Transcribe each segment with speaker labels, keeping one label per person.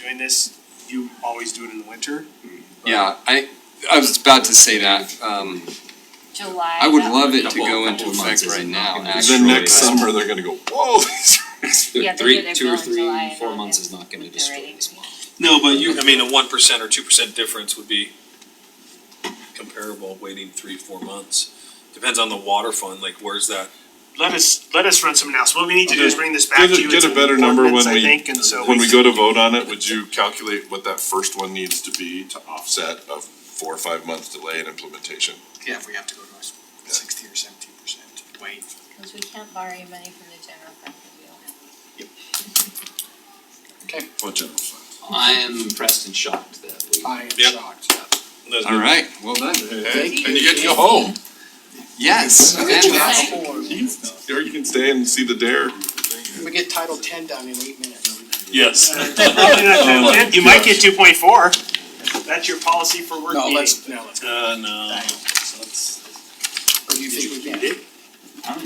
Speaker 1: doing this, you always do it in the winter.
Speaker 2: Yeah, I, I was about to say that, um,
Speaker 3: July.
Speaker 2: I would
Speaker 3: that
Speaker 2: love
Speaker 3: would
Speaker 2: it
Speaker 3: be-
Speaker 2: to go into
Speaker 4: Couple months
Speaker 2: effect right
Speaker 4: isn't
Speaker 2: now,
Speaker 4: gonna be-
Speaker 2: actually.
Speaker 4: The next
Speaker 2: but-
Speaker 4: summer, they're gonna go, whoa, these rates are.
Speaker 3: Yeah, they do,
Speaker 2: Three,
Speaker 3: they
Speaker 2: two
Speaker 3: go
Speaker 2: or
Speaker 3: in July
Speaker 2: three,
Speaker 3: and
Speaker 2: four
Speaker 3: August
Speaker 2: months is not gonna
Speaker 3: with their
Speaker 2: destroy
Speaker 3: ratings.
Speaker 2: this model.
Speaker 5: No, but you, I mean, a one percent or two percent difference would be comparable waiting three, four months. Depends on the water fund, like where's that?
Speaker 1: Let us, let us run some analysis, what we need to do is bring this back
Speaker 4: Get
Speaker 1: to
Speaker 4: a,
Speaker 1: you,
Speaker 4: get
Speaker 1: it's
Speaker 4: a better number when
Speaker 1: ordinance, I
Speaker 4: we,
Speaker 1: think, and so.
Speaker 4: when we go to vote on it, would you calculate what that first one needs to be to offset a four or five month delay in implementation?
Speaker 6: Yeah, if we have to go to a sixty or seventy percent weight.
Speaker 3: Cause we can't borrow any money from the general fund, 'cause we don't have.
Speaker 4: What general fund?
Speaker 7: I am impressed and shocked that we.
Speaker 6: I am
Speaker 5: Yep.
Speaker 6: shocked.
Speaker 2: All right, well done.
Speaker 4: Hey, and you get to go home,
Speaker 2: Yes, fantastic.
Speaker 4: or you can stay and see the dare.
Speaker 6: We get Title Ten done in eight minutes.
Speaker 5: Yes.
Speaker 1: Probably not gonna fit. You might get two point four, that's your policy for work
Speaker 6: No,
Speaker 1: meeting.
Speaker 6: let's, no, let's.
Speaker 5: Uh, no.
Speaker 6: Or do you think we can? You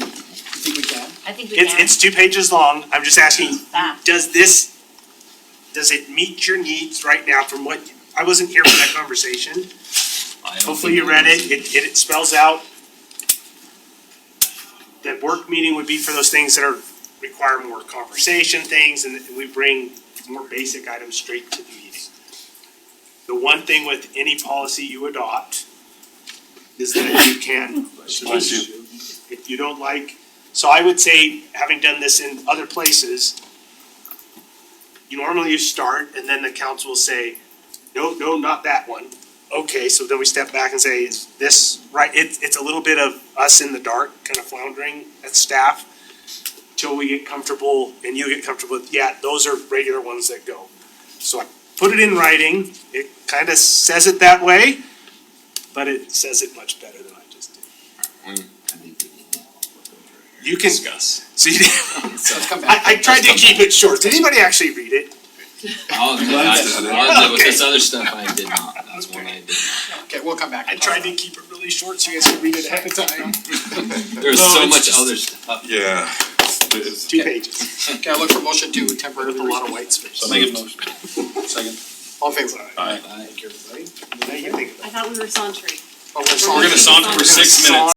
Speaker 6: think we can?
Speaker 3: I think we
Speaker 1: It's,
Speaker 3: can, Ah,
Speaker 1: it's two pages long, I'm just asking,
Speaker 3: that,
Speaker 1: does this, does it meet your needs right now from what, I wasn't here for that conversation. Hopefully you read it, it, it spells out that work meeting would be for those things that are, require more conversation things, and we bring more basic items straight to the meeting. The one thing with any policy you adopt is that you can. If you don't like, so I would say, having done this in other places, you normally you start, and then the council will say, no, no, not that one. Okay, so then we step back and say, is this right? It, it's a little bit of us in the dark, kind of floundering as staff, till we get comfortable and you get comfortable with, yeah, those are regular ones that go. So I put it in writing, it kind of says it that way, but it says it much better than I just did. You can,
Speaker 5: Discuss.
Speaker 1: see,
Speaker 6: Let's come
Speaker 1: I,
Speaker 6: back.
Speaker 1: I tried to keep it short. Did anybody actually read it?
Speaker 7: Oh, no, that's, that was uh, this other stuff I did not, that was one I did.
Speaker 6: Okay, we'll come back.
Speaker 1: I tried to keep it really short so you guys could read it ahead of time.
Speaker 7: not. There was
Speaker 1: No,
Speaker 7: so
Speaker 1: it's
Speaker 7: much
Speaker 1: just-
Speaker 7: other stuff.
Speaker 4: Yeah. It's-
Speaker 1: Two pages.
Speaker 6: Okay, I look for motion to temporarily. A lot of white space.
Speaker 5: Make a motion. Second.
Speaker 6: All in favor?
Speaker 7: I-
Speaker 6: Thank you, everybody.
Speaker 1: Now you can think about it.
Speaker 8: I thought we were sauntering.
Speaker 6: Oh, we're sorry.
Speaker 5: We're gonna saunter for six minutes.